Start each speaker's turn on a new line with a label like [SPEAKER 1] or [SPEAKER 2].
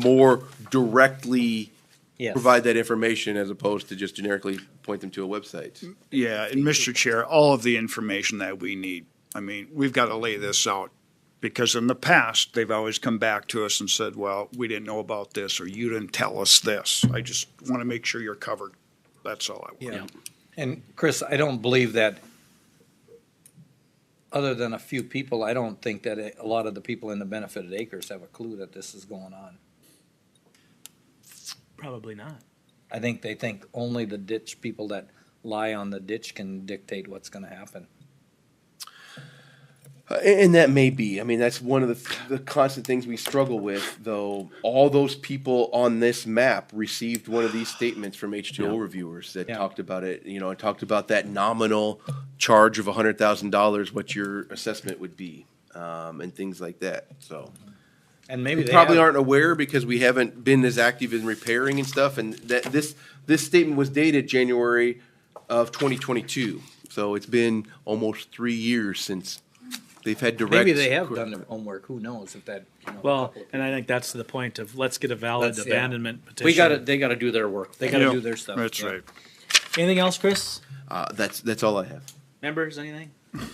[SPEAKER 1] more directly
[SPEAKER 2] Yes.
[SPEAKER 1] provide that information as opposed to just generically point them to a website.
[SPEAKER 3] Yeah, and Mr. Chair, all of the information that we need, I mean, we've got to lay this out. Because in the past, they've always come back to us and said, well, we didn't know about this, or you didn't tell us this. I just want to make sure you're covered. That's all I want.
[SPEAKER 2] Yeah. And Chris, I don't believe that, other than a few people, I don't think that a lot of the people in the benefited acres have a clue that this is going on.
[SPEAKER 4] Probably not.
[SPEAKER 2] I think they think only the ditch people that lie on the ditch can dictate what's gonna happen.
[SPEAKER 1] Uh, and, and that may be. I mean, that's one of the, the constant things we struggle with, though. All those people on this map received one of these statements from H2O reviewers that
[SPEAKER 2] Yeah.
[SPEAKER 1] talked about it, you know, and talked about that nominal charge of $100,000, what your assessment would be, um, and things like that. So
[SPEAKER 2] And maybe they
[SPEAKER 1] probably
[SPEAKER 2] have-
[SPEAKER 1] aren't aware because we haven't been as active in repairing and stuff. And that this this statement was dated January of 2022, so it's been almost three years since they've had direct.
[SPEAKER 2] Maybe they have done their homework, who knows if that. you know,
[SPEAKER 4] Well, and I think that's the point of let's get a valid
[SPEAKER 2] Let's- yeah.
[SPEAKER 4] abandonment petition.
[SPEAKER 2] We gotta, they gotta do their work, they gotta
[SPEAKER 3] Yeah,
[SPEAKER 2] do their stuff.
[SPEAKER 3] That's
[SPEAKER 2] yeah.
[SPEAKER 3] right.
[SPEAKER 4] Anything else, Chris?
[SPEAKER 1] Uh, that's that's all I have.
[SPEAKER 4] Members, anything?